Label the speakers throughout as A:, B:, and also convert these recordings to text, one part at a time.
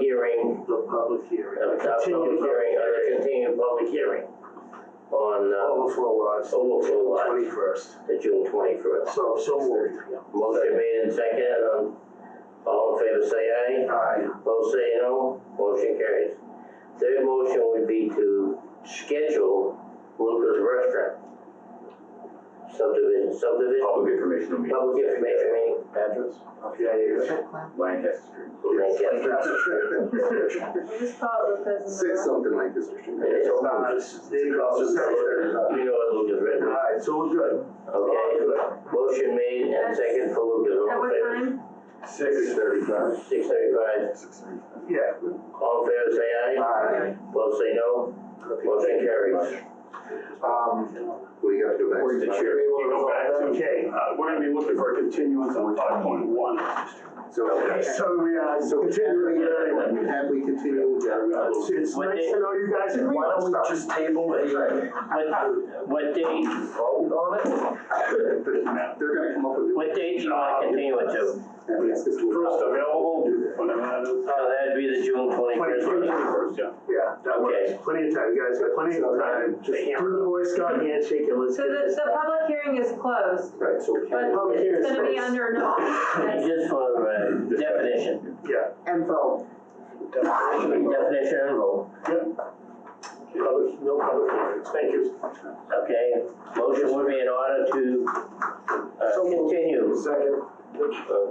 A: hearing,
B: The public hearing.
A: uh, not public hearing, uh, the continued public hearing on uh,
B: Overflow laws,
A: overflow lot
B: twenty-first.
A: to June twenty-first.
B: So, so moved.
A: Motion made and seconded, um, all in favor say aye.
B: Aye.
A: Opposed say no, motion carries. Third motion would be to schedule Luca's Restaurant subdivision, subdivision,
C: Public information meeting,
A: public information meeting. Address?
B: Okay.
C: Lancaster.
D: We just call it Lucas.
E: Six something like this. Mr. Chairman.
A: It's
B: So
A: all
B: now, this is the process.
A: You know what Luca's
B: All
A: Restaurant,
B: right, so we're good.
A: okay? Motion made and seconded for Luca's,
D: At
A: all
D: what
A: in favor?
D: time?
E: Six thirty-five.
A: Six thirty-five,
B: Yeah.
A: all in favor say aye.
B: Aye.
A: Opposed say no, motion carries.
B: Um,
E: We got to go back. to
F: Were the chair able to
G: You go back
F: resolve that?
B: okay,
G: Uh, we're gonna be looking for a continuance on five point one.
E: So,
B: so we, uh,
E: so
B: continuing,
E: have uh, we, have we continued?
B: uh, it's, it's
F: What
B: nice
F: day-
B: to know you guys agree
F: Why
B: on
F: don't we
B: stuff.
F: just table a,
B: uh,
F: what, what date you vote on it?
E: They're gonna come up with.
A: What date do you want to continue it to?
E: It's- it's-
G: First available, whenever that is.
A: So Uh, that'd be the June twenty-first meeting.
G: First, yeah.
B: Yeah, that works.
A: Okay.
B: Plenty of time, guys, got plenty of time. Just do the Boy Scout handshake and let's
D: So
B: get
D: the,
B: this.
D: the public hearing is closed,
E: Right, so.
D: but
B: Public hearing
D: it's
B: is
D: gonna be
B: closed.
D: under no. that's-
A: Just for uh, definition,
B: Yeah.
E: And vote.
A: definition and vote.
B: Public, no public hearings, thank you.
A: Okay, motion would be in order to uh,
F: So moved.
A: continue,
F: Second.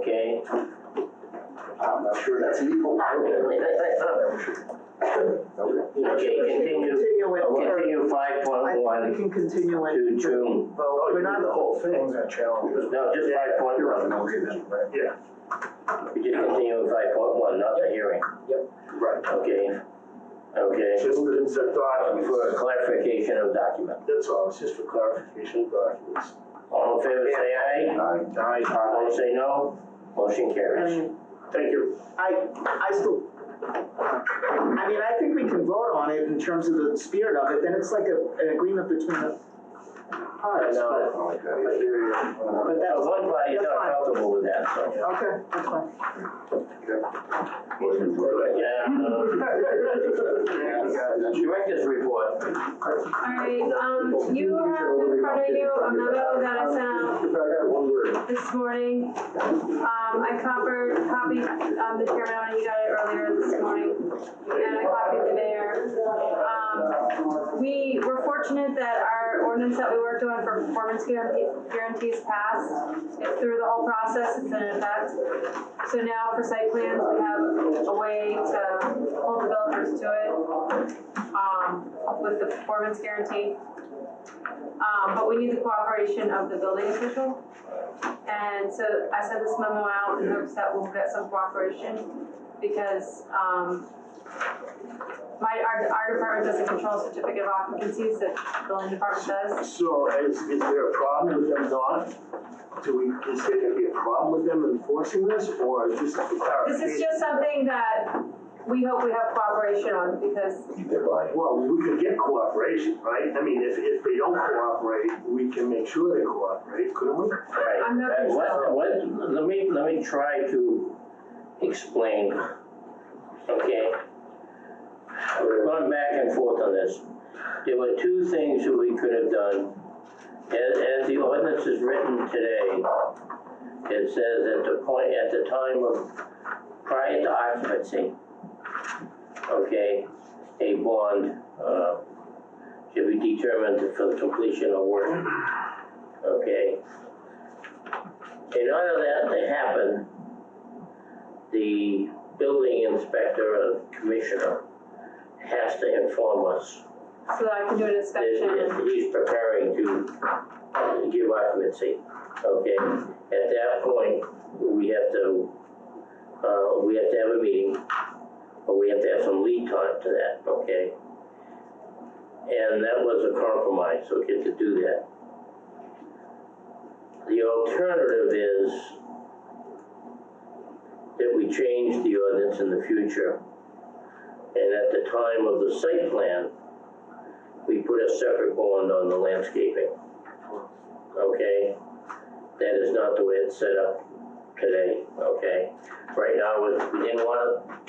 A: okay?
E: I'm not sure that's legal.
A: Okay, continue,
H: Continue it, or
A: continue five
H: I
A: point
H: think we
A: one
H: can continue it.
A: to June,
F: Well,
B: you
F: we're
B: did
F: not.
B: Oh, the whole thing.
F: Things are challenging.
A: no, just five point one.
B: Yeah,
A: We just continue with five point one, not the hearing,
B: right.
A: okay? Okay,
B: Just the, the
A: for
B: documents,
A: clarification of document.
B: that's all, it's just for clarification of documents.
A: All in favor, say aye.
F: Aye.
A: Opposed, say no. Motion carries.
H: And
B: Thank you.
H: I, I still, I mean, I think we can vote on it in terms of the spirit of it, then it's like a, an agreement between the parties, but,
B: I hear you.
H: but
A: So
H: that's,
A: one body's
H: that's
A: not
H: fine.
A: comfortable with that, so.
H: okay, that's fine.
C: Motion to.
A: Yeah. uh, Director's report.
D: All right, um, you have in front of you a memo that I sent out
E: If I got one word.
D: this morning. Um, I copied, copied, um, the chairman when you got it earlier this morning, and I copied the mayor. Um, we were fortunate that our ordinance that we worked on for performance guarantee- guarantees passed. It's through the whole process, it's in effect. So now for site plans, we have a way to hold developers to it, um, with the performance guarantee. Um, but we need the cooperation of the building official. And so I sent this memo out in hopes that we'll get some cooperation because, um, my, our, our department doesn't control certificate of occupancies that the building department does.
B: So is, is there a problem with them not? Do we, is there gonna be a problem with them enforcing this or just a
D: This is
B: clarification?
D: just something that we hope we have cooperation on because,
C: Keep their body.
B: Well, we could get cooperation, right? I mean, if, if they don't cooperate, we can make sure they cooperate, couldn't we?
A: Right.
D: I'm not
A: And
D: sure.
A: What, what, let me, let me try to explain, okay? We're going back and forth on this. There were two things that we could have done. As, as the ordinance is written today, it says at the point, at the time of, prior to occupancy, okay, a bond, uh, should be determined for the completion of work, okay? In order that to happen, the building inspector and commissioner has to inform us
D: so that I can do an
A: that
D: inspection.
A: he's preparing to give occupancy, okay? At that point, we have to, uh, we have to have a meeting, or we have to have some lead time to that, okay? And that was a compromise, okay, to do that. The alternative is that we change the ordinance in the future. And at the time of the site plan, we put a separate bond on the landscaping. Okay? That is not the way it's set up today, okay? Right now, we we didn't wanna